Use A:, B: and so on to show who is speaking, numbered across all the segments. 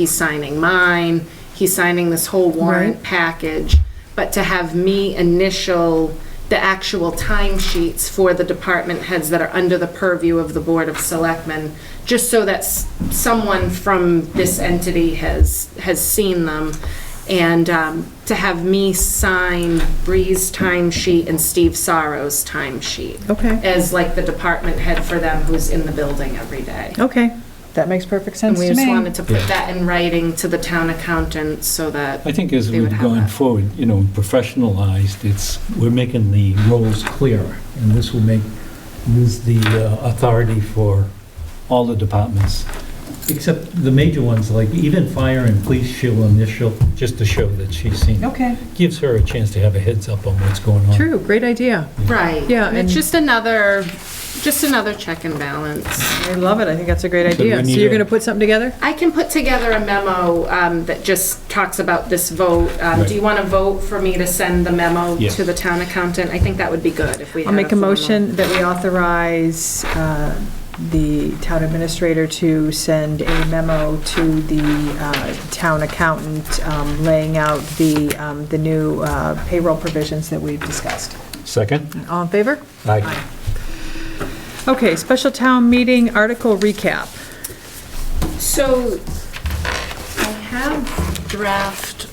A: he's signing mine, he's signing this whole warrant package, but to have me initial the actual timesheets for the department heads that are under the purview of the Board of Selectmen, just so that s- someone from this entity has, has seen them. And um, to have me sign Bree's timesheet and Steve Sorrow's timesheet.
B: Okay.
A: As like the department head for them who's in the building every day.
B: Okay, that makes perfect
A: And
B: sense
A: we
B: to
A: just
B: me.
A: wanted to put that in writing to the town accountant so that,
C: I think as
A: They would
C: we've
A: have
C: gone
A: that.
C: forward, you know, professionalized, it's, we're making the roles clearer, and this will make Liz the uh, authority for all the departments, except the major ones, like even fire and police, she'll initial, just to show that she's seen. it.
B: Okay,
C: Gives her a chance to have a heads up on what's going on.
B: true, great idea.
A: right.
B: Yeah,
A: And it's
B: and-
A: just another, just another check and balance.
B: I love it, I think that's a great
C: So do we
B: idea. So
C: need
B: you're
C: a-
B: going to put something together?
A: I can put together a memo um, that just talks about this vote. Um, Do you want to vote for me to send the memo
C: Yes.
A: to the town accountant? I think that would be good if we
B: I'll
A: had
B: make a
A: formal-
B: motion that we authorize uh, the town administrator to send a memo to the uh, town accountant um, laying out the, um, the new uh, payroll provisions that we've discussed.
C: Second?
B: All in favor?
C: Aye.
B: Okay, special town meeting article recap.
A: So I have draft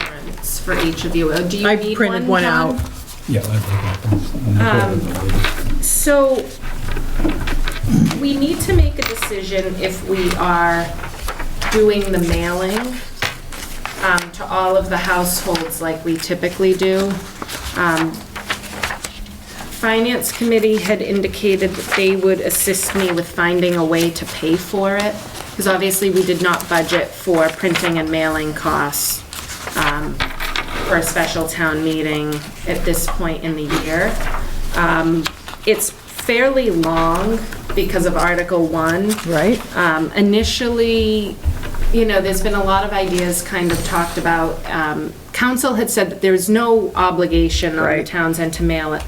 A: warrants for each of you. Uh, Do you
B: I
A: need
B: printed
A: one
B: one out.
A: Tom?
C: Yeah. I think
A: Um,
C: that was-
A: So we need to make a decision if we are doing the mailing um, to all of the households like we typically do. Um, Finance Committee had indicated that they would assist me with finding a way to pay for it, because obviously we did not budget for printing and mailing costs um, for a special town meeting at this point in the year. Um, It's fairly long because of Article 1.
B: Right.
A: Um, Initially, you know, there's been a lot of ideas kind of talked about. Um, Council had said that there's no obligation on the
B: Right.
A: town's end to mail it.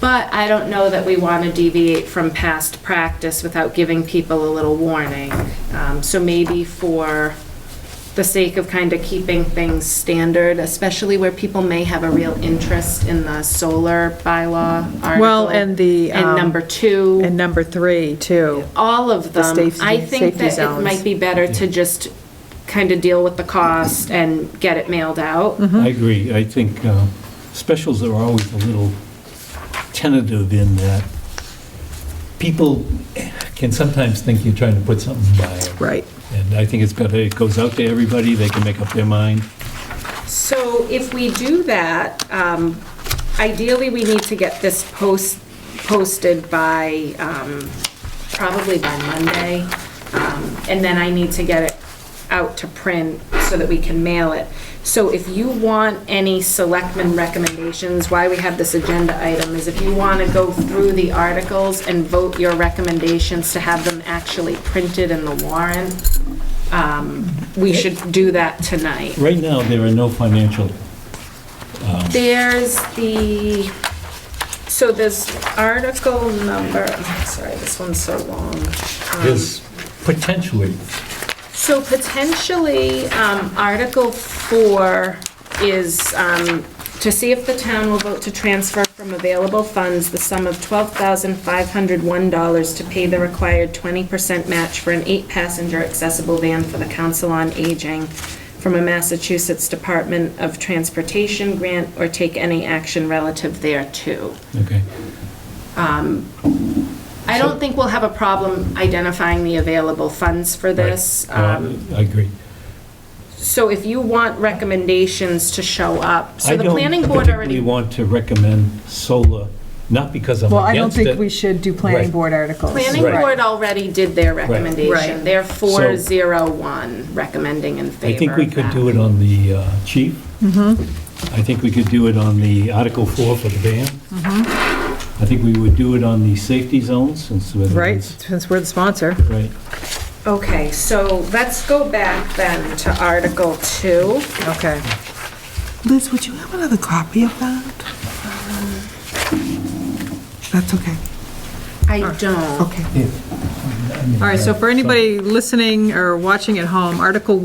A: But I don't know that we want to deviate from past practice without giving people a little warning. Um, So maybe for the sake of kind of keeping things standard, especially where people may have a real interest in the solar bylaw article.
B: Well, and the,
A: And
B: um,
A: number two
B: And number three, too.
A: all of
B: The
A: them.
B: safety-
A: I think
B: safety
A: that it
B: zones.
A: might be better to just kind of deal with the cost and get it mailed out.
C: I agree. I think uh, specials are always a little tentative in that people can sometimes think you're trying to put something by it.
B: Right.
C: And I think it's got, it goes out to everybody, they can make up their mind.
A: So if we do that, um, ideally, we need to get this post, posted by, um, probably by Monday. Um, And then I need to get it out to print so that we can mail it. So if you want any selectmen recommendations, why we have this agenda item is if you want to go through the articles and vote your recommendations to have them actually printed in the warrant, um, we should do that tonight.
C: Right now, there are no financial,
A: Um, There's the, so there's article number, I'm sorry, this one's so long. Um,
C: there's potentially,
A: So potentially, um, Article 4 is um, to see if the town will vote to transfer from available funds the sum of $12,501 to pay the required 20% match for an eight-passenger accessible van for the Council on Aging from a Massachusetts Department of Transportation grant or take any action relative thereto.
C: okay.
A: I don't think we'll have a problem identifying the available funds for this. um,
C: Uh, I agree.
A: So if you want recommendations to show up, so
C: I
A: the
C: don't
A: planning board
C: particularly
A: already,
C: want to recommend solar, not because I'm
B: Well, I don't
C: against it.
B: think we should do planning
C: Right.
B: board articles.
A: planning
C: Right.
A: board already did their recommendation.
B: Right.
A: They're four
C: So-
A: zero one recommending in
C: I
A: favor
C: think we
A: of
C: could do
A: that.
C: it on the uh, chief. I think we could do it on the Article 4 for the ban. I think we would do it on the safety zones since. we're the
B: Right,
C: ones-
B: since we're the sponsor.
C: Right.
A: Okay, so let's go back then to Article Two.
B: Okay.
D: Liz, would you have another copy of that? That's Uh, okay.
A: I don't.
D: Okay.
C: All
B: All right, so for anybody listening or watching at home, Article